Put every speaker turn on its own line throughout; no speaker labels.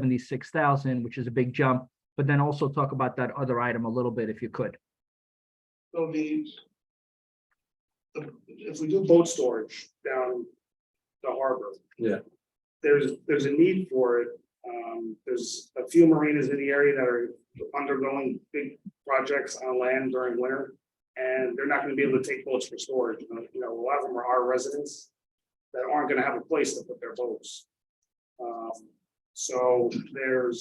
seventy-six thousand, which is a big jump. But then also talk about that other item a little bit if you could.
So the. the- If we do boat storage down the harbor.
Yeah.
There's, there's a need for it. Um, there's a few marinas in the area that are undergoing big projects on land during winter. And they're not gonna be able to take boats for storage. You know- you know, a lot of them are our residents that aren't gonna have a place to put their boats. Um, so there's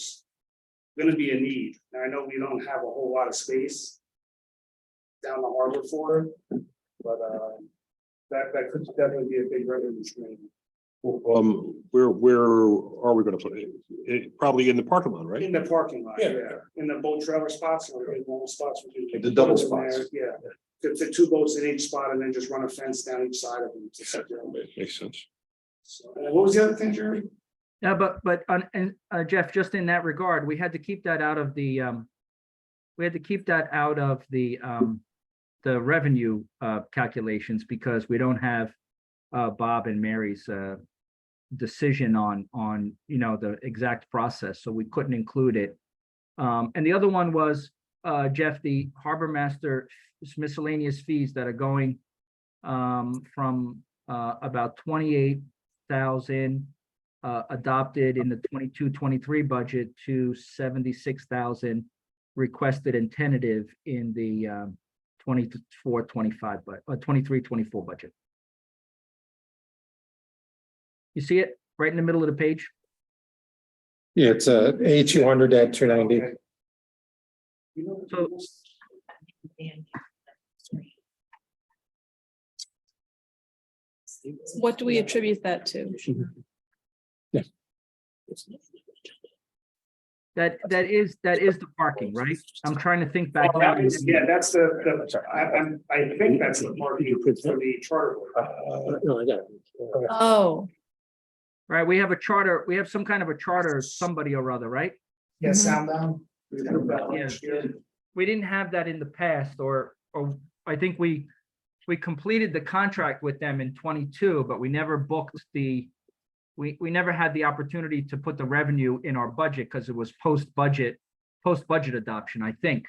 gonna be a need. And I know we don't have a whole lot of space down the harbor for it. But uh, that, that could definitely be a big revenue stream.
Um, where, where are we gonna put it? It, probably in the parking lot, right?
In the parking lot,
Yeah.
yeah, in the boat trailer spots, or in normal spots. we do.
The double
Put them there,
spots.
Yeah, to fit two boats in each spot and then just run a fence down each side of them. to separate them.
Makes sense.
So, and What was the other thing, Jerry?
Yeah, but, but, on- and uh, Jeff, just in that regard, we had to keep that out of the, um, we had to keep that out of the, um, the revenue, uh, calculations because we don't have, uh, Bob and Mary's, uh, decision on, on, you know, the exact process, so we couldn't include it. Um, and the other one was, uh, Jeff, the harbor master miscellaneous fees that are going, um, from, uh, about twenty-eight thousand uh, adopted in the 22-23 budget to seventy-six thousand requested and tentative in the, um, 24-25 but, uh, 23-24 budget. You see it right in the middle of the page?
Yeah, it's uh A two hundred at two ninety.
Okay. You know,
So-
What do we attribute that to?
That, that is, that is the parking, right? I'm trying to think back.
Oh,
now.
that is- Yeah, that's the, the, I, I'm, I think that's the parking for the charter. boat. Uh,
No, I got it.
Oh,
Right, we have a charter, we have some kind of a charter, somebody or other, right?
Yeah, sound down.
Yeah. we didn't have that in the past, or, or I think we, we completed the contract with them in twenty-two, but we never booked the, we, we never had the opportunity to put the revenue in our budget because it was post-budget, post-budget adoption, I think.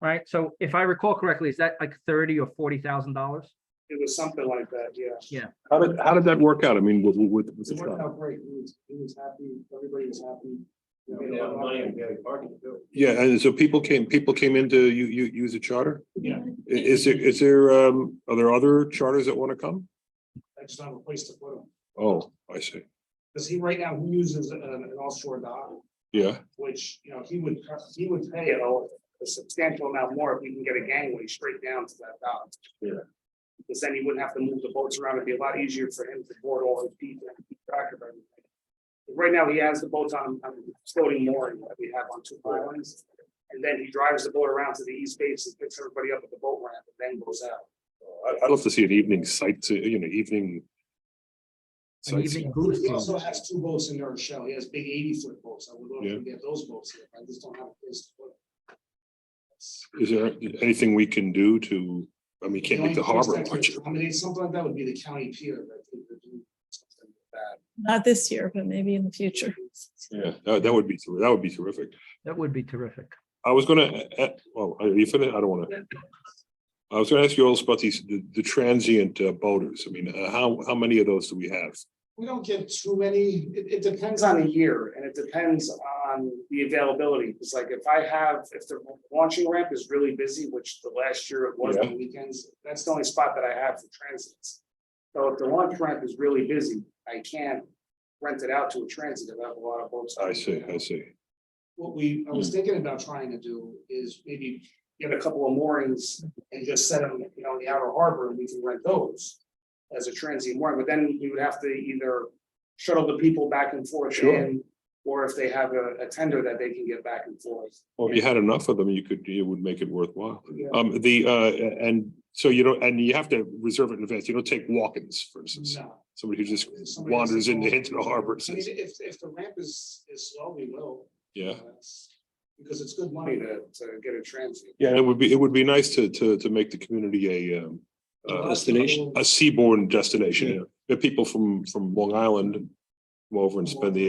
Right, so if I recall correctly, is that like thirty or forty thousand dollars?
It was something like that, yeah.
How did, how did that work out? I mean, with, with, with the
It worked
truck?
out great. He was, he was happy. Everybody was happy. We made a lot of money.
Well,
Yeah, and so people came, people came in to you, you, use a charter?
Yeah.
I- Is there, is there, um, are there other charters that wanna come?
I just don't have a place to put him.
Oh, I see.
Because he right now he uses an, an offshore dock,
Yeah,
which, you know, he would, he would pay a, a substantial amount more if we can get a gangway straight down to that dock.
Yeah.
Because then he wouldn't have to move the boats around. It'd be a lot easier for him to board all his people and keep track of everything. Right now, he has the boats on, on floating mooring that we have on two islands. And then he drives the boat around to the east base and picks everybody up at the boat ramp and then goes out.
I, I'd love to see an evening site, to you know, evening.
An
sightseeing.
evening cruise.
He also has two boats in their shell. He has big eighty foot boats. I would love
Yeah.
to get those boats here. I just don't have a place to put. them.
Is there anything we can do to, I mean, can't make the
only place
harbor
that could
much.
accommodate something like that would be the county pier. that they could do something like that.
not this year, but maybe in the future.
Yeah, that, that would be, ter- that would be terrific.
That would be terrific.
I was gonna, uh, uh, oh, are you finished? I don't wanna. I was gonna ask you also about these, the, the transient uh, boaters. I mean, uh, how, how many of those do we have?
We don't get too many, it, it depends on the year and it depends on the availability. It's like if I have, if the launching ramp is really busy, which the last year it was on weekends, that's the only spot that I have for transits. So if the launch ramp is really busy, I can't rent it out to a transit. I have a lot of boats.
I see, I see.
What we, I
Hmm.
was thinking about trying to do is maybe get a couple of moorings and just set them, you know, in the outer harbor and we can rent those. As a transient mooring, but then we would have to either shuttle the people back and forth
Sure.
in. Or if they have a, a tender that they can get back and forth.
Well, if you had enough of them, you could, it would make it worthwhile.
Yeah.
Um, the, uh, and so you don't, and you have to reserve it in advance. You don't take walk-ins, for instance.
No.
Somebody who just
Somebody has to
wanders into,
call.
into the harbor and
I mean,
says,
if, if the ramp is, is slow, we will.
yeah.
That's- Because it's good money to, to get a transient.
Yeah, it would be, it would be nice to, to, to make the community a, um, uh,
Destination.
A seaborne destination, yeah. There are people from, from Long Island come over and spend the